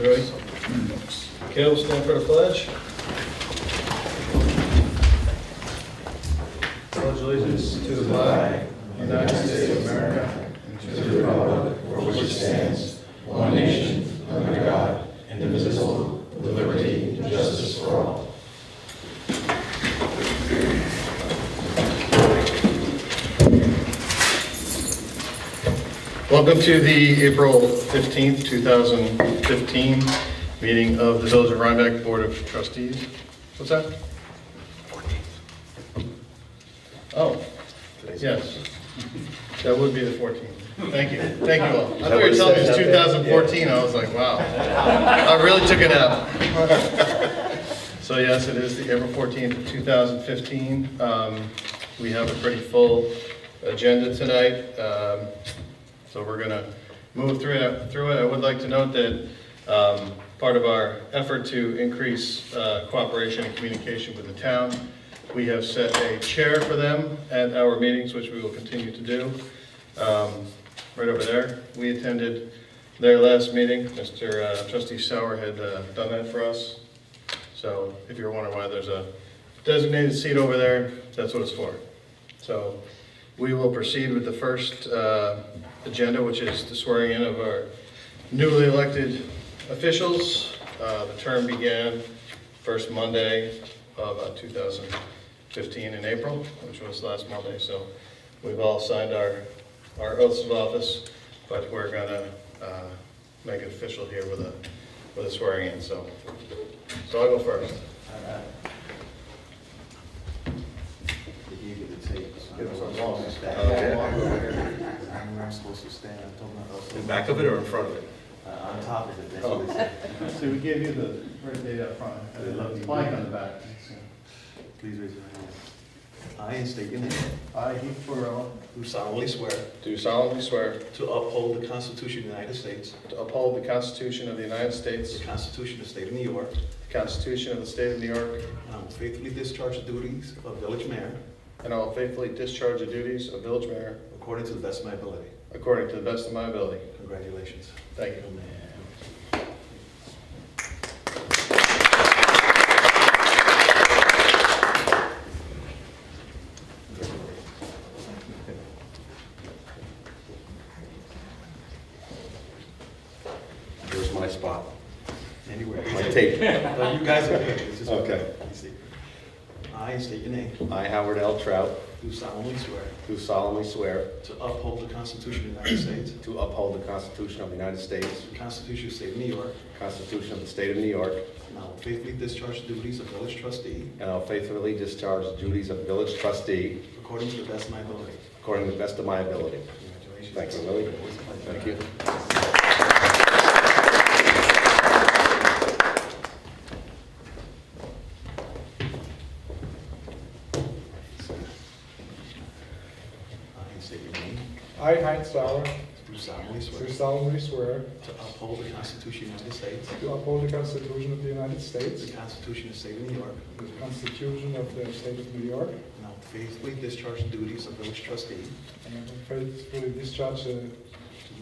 Ready? Kel, stand for the pledge. Pledge allegiance to the flag of the United States of America Welcome to the April 15th, 2015 meeting of the Village of Rhinebeck Board of Trustees. What's that? 14th. Oh, yes. That would be the 14th. Thank you, thank you all. I thought you were telling me it's 2014, I was like, wow. I really took it out. So yes, it is the April 14th, of 2015. Um, We have a pretty full agenda tonight, um, so we're going to move through it. Through it, I would like to note that um, part of our effort to increase uh, cooperation and communication with the town, we have set a chair for them at our meetings, which we will continue to do. Um, Right over there, we attended their last meeting. Mr. uh, Trustee Sauer had uh, done that for us. So if you're wondering why there's a designated seat over there, that's what it's for. So we will proceed with the first uh, agenda, which is the swearing in of our newly elected officials. Uh, The term began first Monday of uh, 2015 in April, which was last Monday. So we've all signed our, our oaths of office, but we're gonna uh, make it official here with a, with a swearing in, so. So I'll go first. If you get the tape. so I Give know us where I'm a long- supposed to stand. I know where I'm supposed to stand, I told myself. In back of it or in front Oh. of it? Uh, On top of it, that's what they said. So we gave you the right date up front, and then it's blank blank on the back. Please raise your hand. I ain't state your name. I, Heath Burrell, Do solemnly swear Do solemnly swear to uphold the Constitution of the United States, to uphold the Constitution of the United States, the Constitution of the State of New York, the Constitution of the State of New York, and I will faithfully discharge the duties of village mayor and I will faithfully discharge the duties of village mayor according to the best of my ability. according to the best of my ability. Congratulations. Thank you. There's my spot. Anywhere. My tape. No, You guys are good. It's just- Okay. You see. I state your name. I, Howard L. Trout, Do solemnly swear do solemnly swear to uphold the Constitution of the United States, to uphold the Constitution of the United States, the Constitution of the State of New York, the Constitution of the State of New York, and I will faithfully discharge the duties of village trustee and I'll faithfully discharge the duties of village trustee according to the best of my ability. according to the best of my ability. Congratulations. Thank you, Willie. Always a pleasure. Thank you. I state your name. I, Heinz Sauer, Do solemnly swear do solemnly swear to uphold the Constitution of the United States, to uphold the Constitution of the United the States, Constitution of the State of New York, the Constitution of the State of New York, and I will faithfully discharge the duties of village trustee and I will faithfully discharge the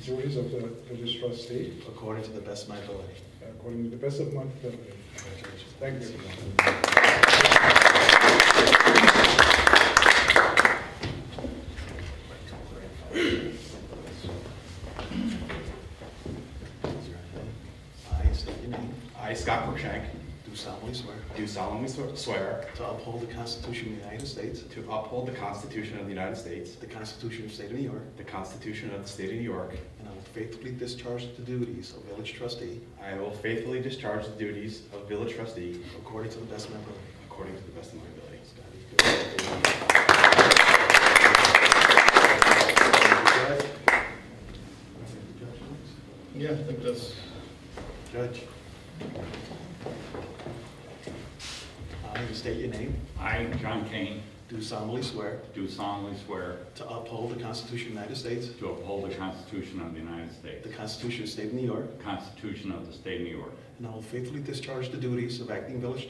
duties of the village trustee according to the best of my ability. according to the best of my ability. Congratulations. Thank you. I state your name. I, Scott Cruikshank, Do solemnly swear do solemnly swe- swear to uphold the Constitution of the United States, to uphold the Constitution of the United States, the Constitution of the State of New York, the Constitution of the State of New York. and I will faithfully discharge the duties of village trustee I will faithfully discharge the duties of village trustee according to the best of my ability. according to the best of my ability. Yeah, I think that's, Judge. I state your name, I, John Kane, do solemnly swear do solemnly swear to uphold the Constitution of the United States, to uphold the Constitution of the United the States, Constitution of the State of New York, the Constitution of the State of New York, and I will faithfully discharge the duties of acting village